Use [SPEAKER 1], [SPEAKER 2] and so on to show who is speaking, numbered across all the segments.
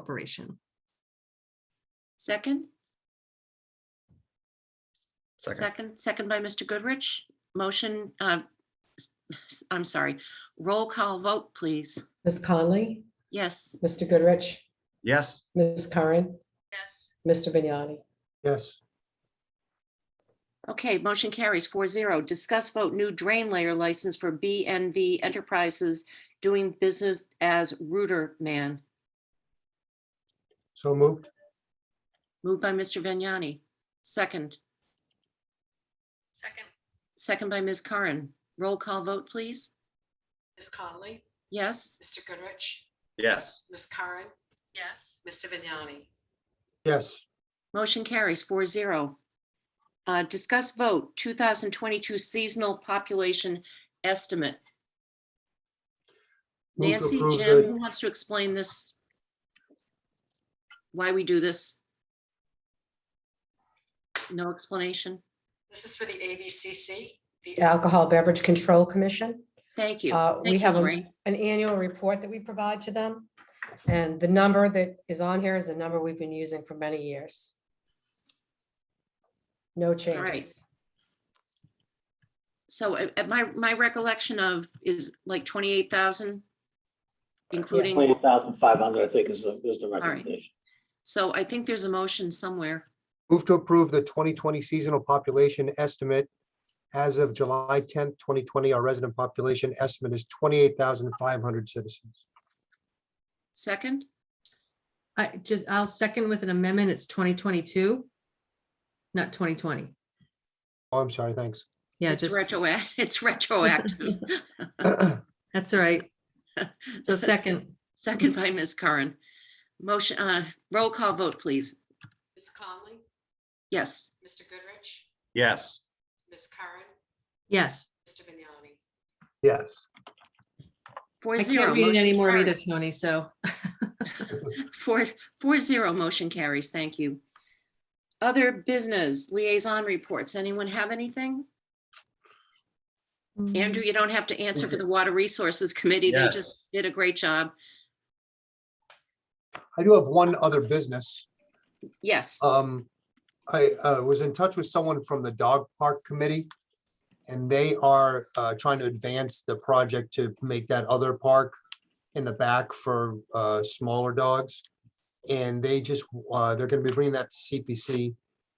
[SPEAKER 1] Corporation.
[SPEAKER 2] Second,
[SPEAKER 3] Second,
[SPEAKER 2] second, second by Mr. Goodrich. Motion, uh, s- s- I'm sorry, roll call vote, please.
[SPEAKER 4] Ms. Conley,
[SPEAKER 2] Yes,
[SPEAKER 4] Mr. Goodrich,
[SPEAKER 3] yes,
[SPEAKER 4] Ms. Curran,
[SPEAKER 5] yes,
[SPEAKER 4] Mr. Vignani.
[SPEAKER 6] yes,
[SPEAKER 2] okay, motion carries four zero. Discuss vote new drain layer license for BNV Enterprises doing business as Rooter Man.
[SPEAKER 6] so moved,
[SPEAKER 2] Moved by Mr. Vignani. Second,
[SPEAKER 5] second,
[SPEAKER 2] second by Ms. Curran. Roll call vote, please.
[SPEAKER 7] Ms. Conley,
[SPEAKER 2] Yes,
[SPEAKER 7] Mr. Goodrich,
[SPEAKER 3] yes,
[SPEAKER 7] Ms. Karen,
[SPEAKER 5] yes,
[SPEAKER 7] Mr. Vignani.
[SPEAKER 6] yes,
[SPEAKER 2] motion carries four zero. Uh, discuss vote two thousand twenty-two seasonal population estimate.
[SPEAKER 6] Move to
[SPEAKER 2] Nancy,
[SPEAKER 6] approve
[SPEAKER 2] Jim,
[SPEAKER 6] the-
[SPEAKER 2] who wants to explain this? Why we do this? No explanation?
[SPEAKER 7] This is for the ABCC. the-
[SPEAKER 4] Alcohol Beverage Control Commission.
[SPEAKER 2] Thank you.
[SPEAKER 4] Uh,
[SPEAKER 2] Thank
[SPEAKER 4] We
[SPEAKER 2] you,
[SPEAKER 4] have a-
[SPEAKER 2] Lorraine.
[SPEAKER 4] an annual report that we provide to them. And the number that is on here is the number we've been using for many years. No changes.
[SPEAKER 2] So uh, at my, my recollection of is like twenty-eight thousand? Including,
[SPEAKER 8] Twenty-eight thousand five hundred, I think, is the, is the
[SPEAKER 2] right.
[SPEAKER 8] recommendation.
[SPEAKER 2] so I think there's a motion somewhere.
[SPEAKER 6] move to approve the twenty twenty seasonal population estimate. As of July tenth, twenty twenty, our resident population estimate is twenty-eight thousand five hundred citizens.
[SPEAKER 2] Second,
[SPEAKER 1] I just, I'll second with an amendment. It's twenty twenty-two. Not twenty twenty.
[SPEAKER 6] Oh, I'm sorry, thanks.
[SPEAKER 1] Yeah,
[SPEAKER 2] it's
[SPEAKER 1] just,
[SPEAKER 2] retroact, it's retroactive.
[SPEAKER 1] that's all right. So second,
[SPEAKER 2] Second by Ms. Curran. Motion, uh, roll call vote, please.
[SPEAKER 7] Ms. Conley,
[SPEAKER 2] Yes,
[SPEAKER 7] Mr. Goodrich,
[SPEAKER 3] yes,
[SPEAKER 7] Ms. Karen,
[SPEAKER 1] yes.
[SPEAKER 7] Mr. Vignani.
[SPEAKER 6] Yes,
[SPEAKER 2] four
[SPEAKER 1] I
[SPEAKER 2] zero.
[SPEAKER 1] can't read it
[SPEAKER 2] motion
[SPEAKER 1] anymore either,
[SPEAKER 2] carries.
[SPEAKER 1] Tony, so.
[SPEAKER 2] Four, four zero, motion carries. Thank you. Other business liaison reports. Anyone have anything? Andrew, you don't have to answer for the Water Resources Committee. They
[SPEAKER 3] Yes.
[SPEAKER 2] just did a great job.
[SPEAKER 6] I do have one other business.
[SPEAKER 2] Yes,
[SPEAKER 6] Um, I, uh, was in touch with someone from the dog park committee. And they are, uh, trying to advance the project to make that other park in the back for, uh, smaller dogs. And they just, uh, they're gonna be bringing that to CPC,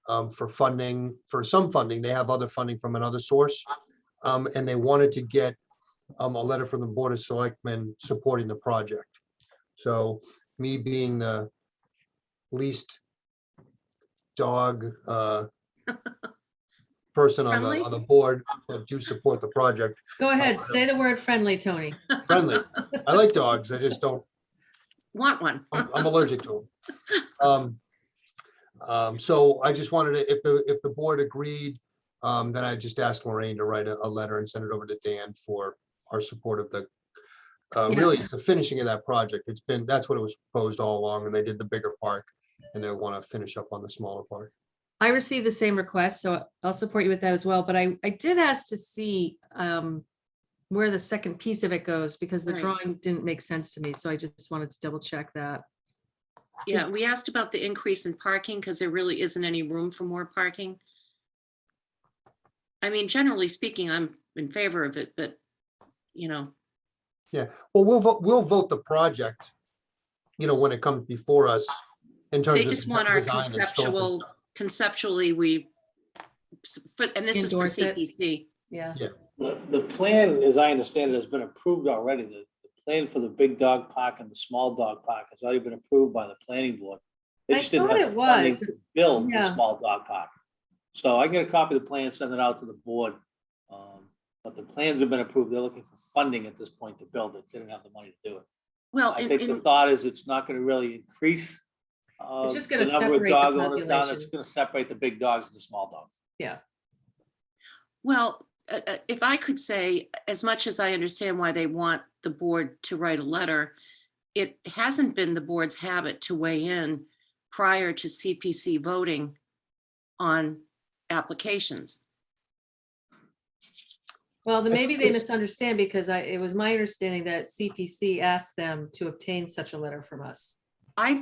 [SPEAKER 6] um, for funding, for some funding. They have other funding from another source. Um, and they wanted to get, um, a letter from the Board of Selectmen supporting the project. So me being the least dog uh, person on the,
[SPEAKER 2] Friendly?
[SPEAKER 6] on the board that do support the project.
[SPEAKER 1] Go ahead, say the word friendly, Tony.
[SPEAKER 6] Friendly. I like dogs. I just don't,
[SPEAKER 2] want one.
[SPEAKER 6] I'm I'm allergic to them. Um, um, So I just wanted to, if the, if the board agreed, um, then I just asked Lorraine to write a, a letter and send it over to Dan for our support of the, uh,
[SPEAKER 1] Yeah.
[SPEAKER 6] really, it's the finishing of that project. It's been, that's what it was proposed all along, and they did the bigger park, and they want to finish up on the smaller park.
[SPEAKER 1] I received the same request, so I'll support you with that as well, but I, I did ask to see um where the second piece of it goes, because the
[SPEAKER 2] Right.
[SPEAKER 1] drawing didn't make sense to me, so I just wanted to double check that.
[SPEAKER 2] Yeah, we asked about the increase in parking because there really isn't any room for more parking. I mean, generally speaking, I'm in favor of it, but, you know,
[SPEAKER 6] Well, we'll vote, we'll vote the project, you know, when it comes before us in terms
[SPEAKER 2] they
[SPEAKER 6] of.
[SPEAKER 2] just
[SPEAKER 6] de-
[SPEAKER 2] want our
[SPEAKER 6] design and so forth.
[SPEAKER 2] conceptual, conceptually, we, s- for- and this is for
[SPEAKER 1] Endorse it.
[SPEAKER 2] CPC.
[SPEAKER 1] Yeah.
[SPEAKER 8] The, the plan, as I understand it, has been approved already. The, the plan for the big dog park and the small dog park has already been approved by the planning board. They
[SPEAKER 1] I
[SPEAKER 8] just didn't
[SPEAKER 1] thought
[SPEAKER 8] have
[SPEAKER 1] it
[SPEAKER 8] the funding
[SPEAKER 1] was.
[SPEAKER 8] to Build the
[SPEAKER 1] Yeah.
[SPEAKER 8] small dog park. So I get a copy of the plan, send it out to the board. Um, But the plans have been approved. They're looking for funding at this point to build it. They didn't have the money to do it.
[SPEAKER 2] Well,
[SPEAKER 8] I
[SPEAKER 2] and-
[SPEAKER 8] think the
[SPEAKER 2] and-
[SPEAKER 8] thought is it's not gonna really increase. uh,
[SPEAKER 1] It's just gonna
[SPEAKER 8] the number of
[SPEAKER 1] separate the
[SPEAKER 8] dog owners down. It's
[SPEAKER 1] population.
[SPEAKER 8] gonna separate the big dogs and the small dogs.
[SPEAKER 2] well, uh, uh, if I could say, as much as I understand why they want the board to write a letter, it hasn't been the board's habit to weigh in prior to CPC voting on applications.
[SPEAKER 1] Well, then maybe they
[SPEAKER 6] it's-
[SPEAKER 1] misunderstand because I, it was my understanding that CPC asked them to obtain such a letter from us.